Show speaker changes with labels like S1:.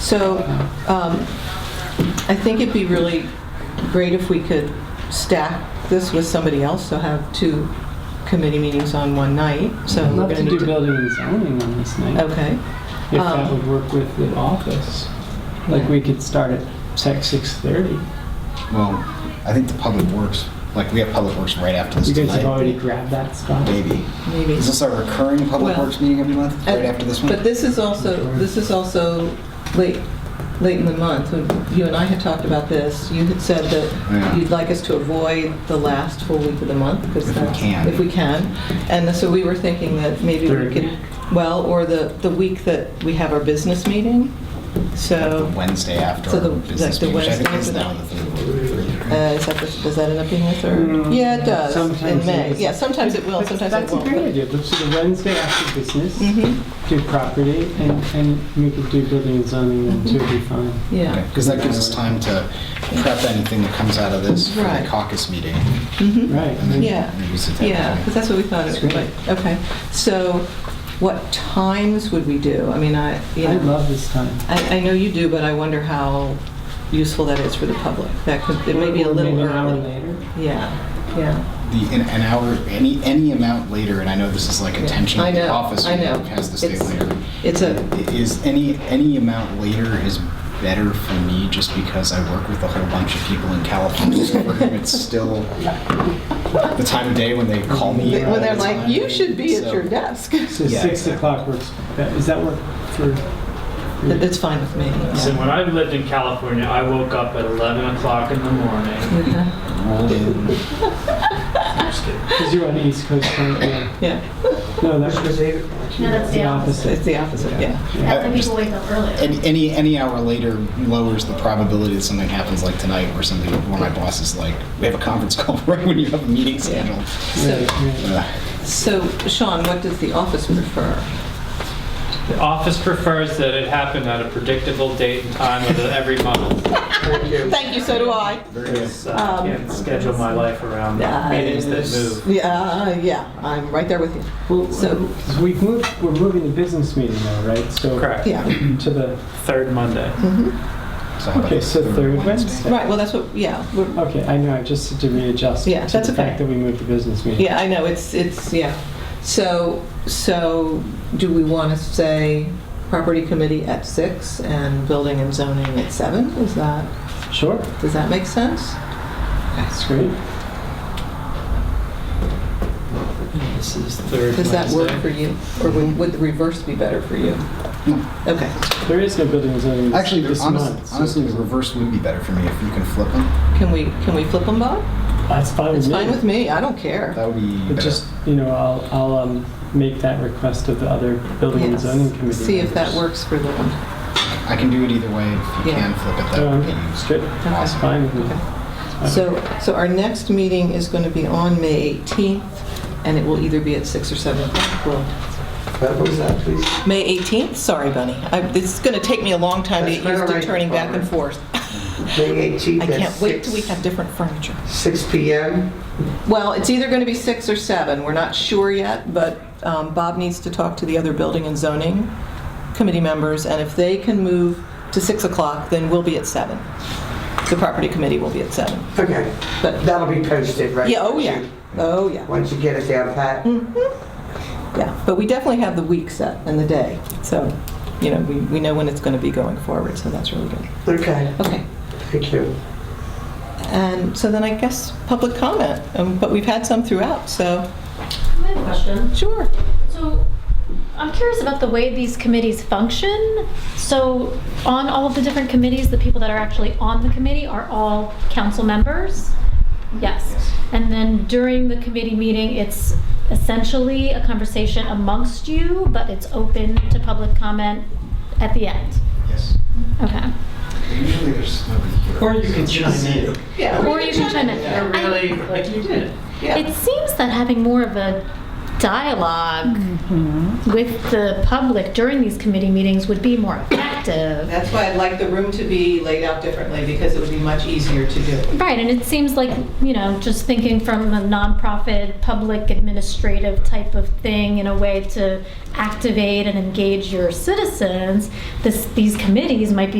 S1: So um, I think it'd be really great if we could stack this with somebody else, so have two committee meetings on one night, so
S2: I'd
S1: we're
S2: love
S1: going to
S2: to do
S1: need to...
S2: building and zoning on this night,
S1: Okay,
S2: if that
S1: um,
S2: would work with the office. Like, we could start at six, 6:30.
S3: Well, I think the public works, like we have public works right after this
S2: You guys have already
S3: tonight.
S2: grabbed that spot.
S3: Maybe.
S1: maybe.
S3: Is this our recurring public
S1: Well, uh,
S3: works meeting every month, right after this
S1: But
S3: one?
S1: this is also, this is also late, late in the month. You and I had talked about this. You had said
S3: Yeah.
S1: that you'd like us to avoid the last full week of the month because
S3: If we
S1: that's...
S3: can.
S1: If we can. And so we were thinking that maybe we
S2: Third.
S1: could, well, or the, the week that we have our business meeting. So,
S3: The Wednesday after
S1: So the-
S3: our business
S1: like the
S3: meeting, which I think
S1: Wednesday
S3: is now the
S1: uh,
S3: third.
S1: is that, the- does that end up being the third?
S2: Mm,
S1: Yeah, it does.
S2: sometimes
S1: In May.
S2: it is.
S1: Yeah, sometimes it will, sometimes it
S2: That's a
S1: won't.
S2: great idea, let's do the Wednesday after business,
S1: hmm
S2: do property, and, and we could do building and zoning then too, it'd
S1: Mm-hmm.
S2: be fine.
S1: yeah.
S3: Because that gives us time to prep anything that comes out of this for the
S1: Right.
S3: caucus meeting.
S1: Mhm.
S2: Right. and then-
S1: Yeah.
S3: And use it that
S1: Yeah,
S3: way.
S1: because that's what we thought it
S2: That's
S1: would
S2: great.
S1: like. Okay, so what times would we do? I mean, I, you
S2: I
S1: know,
S2: love this time.
S1: I, I know you do, but I wonder how useful that is for the public. That could, it may be a
S2: Or
S1: little
S2: maybe an hour
S1: early.
S2: later.
S1: Yeah, yeah.
S3: The, an an hour, any, any amount later, and I know this is like a
S1: Yeah.
S3: tension
S1: I
S3: with the
S1: know,
S3: office,
S1: I
S3: who
S1: know.
S3: has this day
S1: It's-
S3: later.
S1: It's a,
S3: is any any amount later is better for me just because I work with a whole bunch of people in California. So for him, it's still the time of day when they call me.
S2: Yeah,
S1: when they're
S3: all the
S1: like,
S3: time.
S1: you should be at
S3: So-
S1: your desk.
S2: So
S3: Yeah,
S2: six
S3: exactly.
S2: o'clock works, that- does that work for? for you?
S1: It's fine with me.
S4: So when I lived in California, I woke up at 11 o'clock in the morning.
S1: Yeah.
S3: Rolled in.
S4: I'm just kidding.
S2: Because you're on the East Coast, right? Yeah.
S1: Yeah,
S2: No, that's
S5: No, that's the opposite.
S1: it's the opposite, yeah.
S5: That's when
S3: Yeah.
S5: people wake up earlier.
S3: Any, any any hour later lowers the probability that something happens like tonight, where somebody one of my bosses is like, we have a conference call right when you have a meeting scheduled.
S2: Right, right.
S3: Uh,
S1: So Sean, what does the office prefer?
S4: The office prefers that it happen at a predictable date and time of the- every month.
S1: Thank you, so do I.
S4: So
S1: Um,
S4: I can't schedule my life around meetings that move.
S1: Yeah, yeah, I'm right there with you.
S2: Well,
S1: So-
S2: so we've moved, we're moving the business meeting now, right? So
S4: Correct.
S1: Yeah.
S2: To the,
S4: Third Monday.
S1: Hmm.
S3: so how about
S2: okay, so third Wednesday.
S1: Right, well, that's what, yeah, we're,
S2: Okay, I know, I just had to readjust.
S1: Yeah, that's
S2: To the fact
S1: okay.
S2: that we moved the business meeting.
S1: yeah, I know, it's, it's, yeah. So, so do we want to say property committee at six and building and zoning at seven? Is that,
S2: Sure,
S1: does that make sense?
S2: that's great.
S4: This is third
S1: Does that work for
S4: Wednesday.
S1: you? Or would would the reverse be better for you?
S3: No.
S1: Okay,
S2: There is no building and zoning this
S3: Actually,
S2: this
S3: honest,
S2: month. so-
S3: honestly, the reverse would be better for me if you can flip them.
S1: can we, can we flip them, Bob?
S2: That's fine with
S1: It's
S2: me.
S1: fine with me, I don't care.
S3: That would be
S2: But
S3: better.
S2: just, you know, I'll, I'll um, make that request of the other building and
S1: Yes.
S2: zoning committee.
S1: See if that
S2: members.
S1: works for them.
S3: I can do it either way. If you
S1: Yeah.
S3: can flip it, that
S2: Um,
S3: would be
S2: Straight, that's
S1: Okay.
S2: fine with me.
S1: Okay.
S2: That's fine.
S1: So, so our next meeting is going to be on May 18th, and it will either be at six or seven. We'll
S6: What was that, please?
S1: May 18th? Sorry, Bunny. I- It's going to take me a long time to
S6: That's
S1: get used
S6: quite all
S1: to
S6: right,
S1: turning back and
S6: Barbara.
S1: forth.
S6: May
S1: I
S6: 18th at
S1: can't wait till we
S6: 6,
S1: have different furniture.
S6: 6 PM?
S1: Well, it's either going to be six or seven. We're not sure yet, but um, Bob needs to talk to the other building and zoning committee members, and if they can move to 6 o'clock, then we'll be at seven. The property committee will be at seven.
S6: Okay,
S1: But,
S6: that'll be posted, right?
S1: yeah, oh yeah, oh yeah.
S6: Once you get it down pat?
S1: Yeah, but we definitely have the week set and the day, so, you know, we, we know when it's going to be going forward, so that's really good.
S6: Okay,
S1: Okay,
S6: thank you.
S1: and so then I guess public comment, um, but we've had some throughout, so,
S5: I have a question.
S1: sure.
S5: So
S7: I'm curious about the way these committees function. So, on all of the different committees, the people that are actually on the committee are all council members? Yes. And then during the committee meeting, it's essentially a conversation amongst you, but it's open to public comment at the end?
S3: Yes.
S7: Okay.
S3: Usually there's nobody here.
S2: Or you can chime in.
S7: Or you can chime in. I-
S2: like you did.
S7: It seems that having more of a dialogue with the public during these committee meetings would be more effective.
S1: That's why I'd like the room to be laid out differently, because it would be much easier to do.
S7: Right, and it seems like, you know, just thinking from a nonprofit, public administrative type of thing in a way to activate and engage your citizens, this, these committees might be